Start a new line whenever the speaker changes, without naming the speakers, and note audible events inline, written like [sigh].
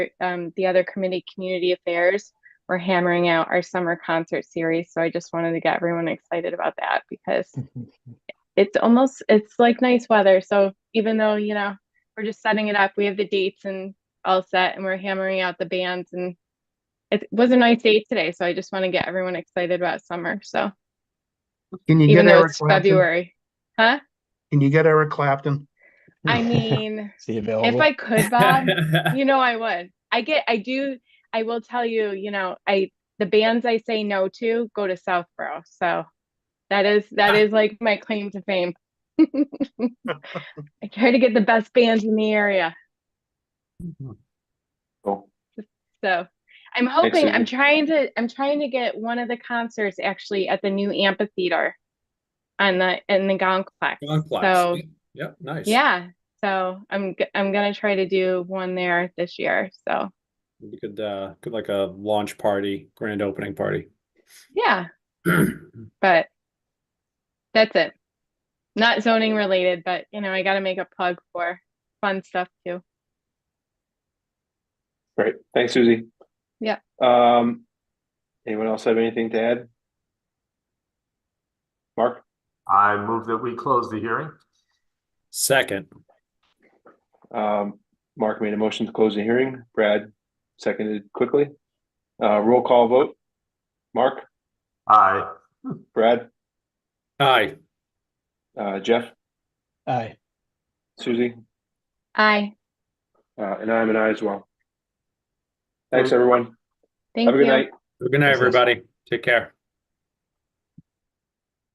um, the other committee, Community Affairs, we're hammering out our summer concert series. So I just wanted to get everyone excited about that because it's almost, it's like nice weather. So even though, you know, we're just setting it up, we have the dates and all set and we're hammering out the bands and it was a nice day today. So I just want to get everyone excited about summer. So
Can you get
even though
Eric
it's
Clapton?
February, huh?
Can you get Eric Clapton? [laughs]
I
[laughs]
mean,
See available.
if I could, Bob, you know I would. I get I do I will tell you, you know, I the bands I say no to go to Southborough. So that is that is like my claim to fame. [laughs] I try to get the best bands in the area.
[laughs] Cool.
So I'm hoping I'm
Excellent.
trying to I'm trying to get one of the concerts actually at the new amphitheater on the in the Gonkplex.
Complex.
So-
Yeah. Yep, nice.
Yeah. So I'm g- I'm gonna try to do one there this year. So
We could uh could like a launch party, grand opening party. [clears throat]
yeah, but that's it. Not zoning related, but you know, I gotta make a plug for fun stuff too.
Great. Thanks, Susie.
Yeah.
Um, anyone else have anything to add? Mark,
I move that we close the hearing.
Second,
um, Mark made a motion to close the hearing. Brad seconded quickly. Uh, roll call vote. Mark,
Aye.
Brad,
aye,
uh, Jeff,
Aye.
Susie,
Aye,
uh, and I'm an I as well. Thanks, everyone.
thank
Have a
you.
good night.
good night, everybody, take care.